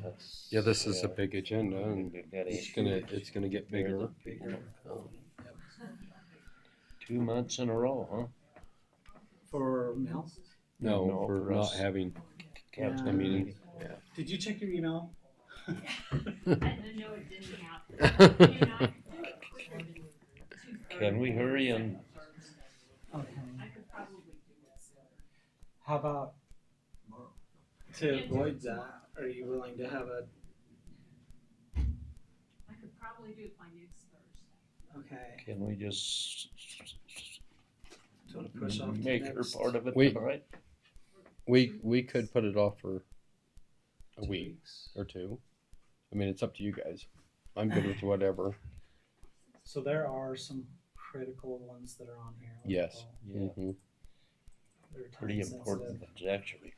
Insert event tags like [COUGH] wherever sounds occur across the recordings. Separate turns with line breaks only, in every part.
That's-
Yeah, this is a
yeah.
big agenda and
We've got
it's
eight
gonna,
years.
it's gonna get bigger. Um,
Two months in a row, huh?
For Mel,
No,
No,
for
for
not
us.
having,
Yeah.
I mean,
did you check your email?
no, it didn't happen.
it-
Can we hurry and
Okay. How about to avoid that? Are you willing to have a
I could probably do it by next Thursday.
okay?
can we just
Do you want to push off to
Mm-hmm. make her
next?
part of it
We-
tonight?
we, we could put it off for a week
Two weeks.
or two. I mean, it's up to you guys. I'm good with whatever.
So there are some critical ones that are on here. like,
Yes.
well,
Yeah,
Mhm.
they're time
pretty
sensitive,
important, ones, actually.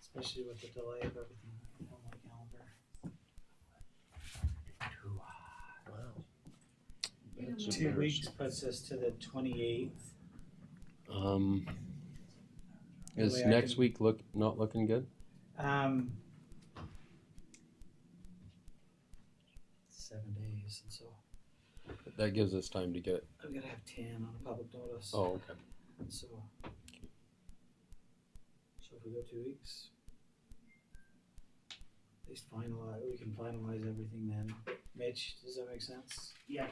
especially with the delay of everything on my calendar.
That's
Two weeks
embarrassing.
puts us to the twenty eighth.
Um,
That
is
way I
next
can-
week look, not looking good?
Um. Seven days, and so
That gives us time to get,
I'm gonna have ten on a public notice.
oh, okay.
So. So if we go two weeks. At least finalize, we can finalize everything then. Mitch, does that make sense?
Yeah.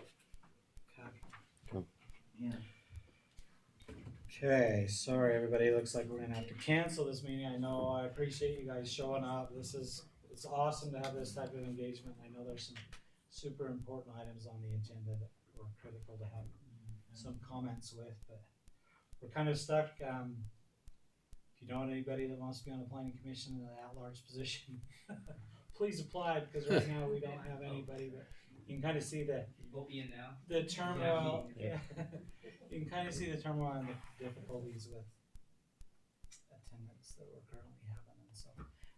Okay.
Cool.
Yeah.
Okay, sorry, everybody, looks like we're gonna have to cancel this meeting, I know, I appreciate you guys showing up, this is, it's awesome to have this type of engagement, I know there's some super important items on the agenda that were critical to have some comments with, but we're kind of stuck, um, if you know anybody that wants to be on the planning commission in an at-large position, [LAUGHS] please apply, because right now we don't have anybody, but you can kind of see the,
We'll be in now.
the turmoil, [LAUGHS] yeah, you can kind of see the turmoil and the difficulties with attendance that we're currently having, and so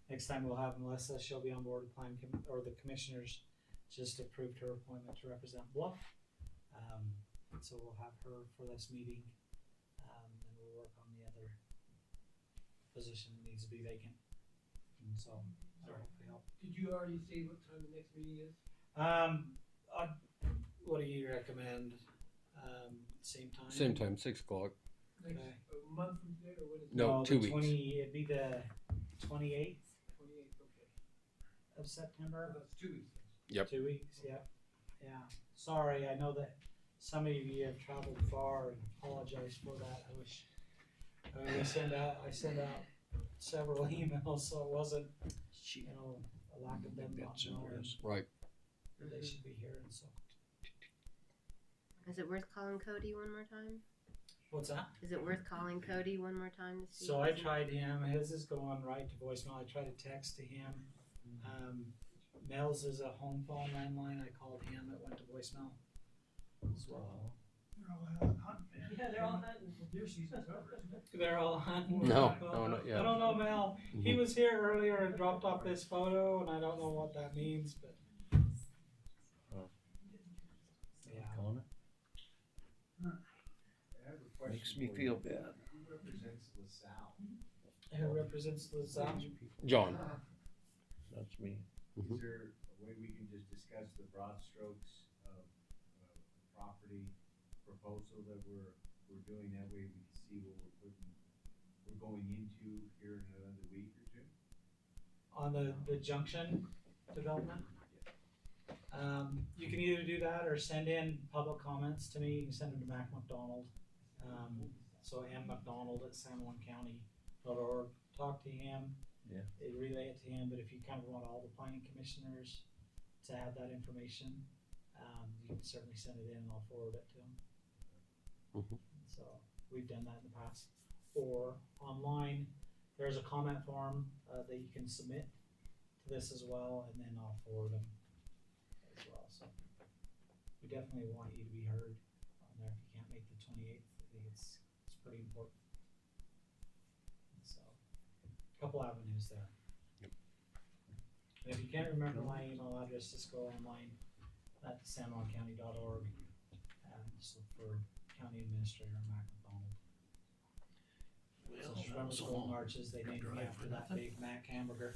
next time we'll have Melissa, she'll be on board with plan com- or the commissioners just approved her appointment to represent Bluff. Um, so we'll have her for this meeting, um, and we'll work on the other position that needs to be vacant. And so, that'll hopefully help.
Did you already say what time the next meeting is?
Um, I, what do you recommend? Um, same time?
Same time, six o'clock.
Next,
Okay.
a month from today, or what is it?
No, two
the
weeks.
20, it'd be the 28th
Twenty-eighth, okay.
of
Well,
September.
That's two weeks.
Yep.
Two weeks, yep. Yeah. Sorry, I know that some of you have traveled far and apologize for that. I wish I mean, I send out I sent out several [LAUGHS] emails so it wasn't you know a lack of them not
That's
knowing
embarrassing.
Right.
that they should be here and so
Is it worth calling Cody one more time?
what's that?
Is it worth calling Cody one more time to see?
So
if
I
he's-
tried him. His is going right to voicemail. I tried to text to him.
Mm-hmm.
Um, Mel's is a home phone landline. I called him. It went to voicemail as well.
They're all out hunting, man.
Yeah, they're all
hunting. Deer season's over, isn't it?
They're all hunting.
No, no, Mm-hmm. not
I
yet.
don't know, Mel. He was here earlier and dropped off this photo, and I don't know what that means, but. Yeah.
Connor?
I have a question
Makes me
for you.
feel bad.
Who represents LaSalle?
Who represents LaSalle?
John,
That's me.
Mhm.
Mm-hmm.
Is there a way we can just discuss the broad strokes of, uh, the property proposal that we're, we're doing? That way we can see what we're putting, we're going into here in another week or two?
on the, the junction development. Um, you can either do that or send in public comments to me, you can send them to Mac McDonald. Um, so Ann McDonald at San Juan County, or talk to him.
Yeah.
They relay it to him, but if you kind of want all the planning commissioners to have that information, um, you can certainly send it in and I'll forward it to them.
Mhm.
So, we've done that in the past. Or online, there's a comment form, uh, that you can submit to this as well, and then I'll forward them as well, so. We definitely want you to be heard on there if you can't make the twenty-eighth, I think it's, it's pretty important. So, couple avenues there. And if you can't remember my email address, just go online at sanjuancounty.org and just look for County Administrator Mac McDonald. So just remember the golden arches, they named me after that Big Mac hamburger.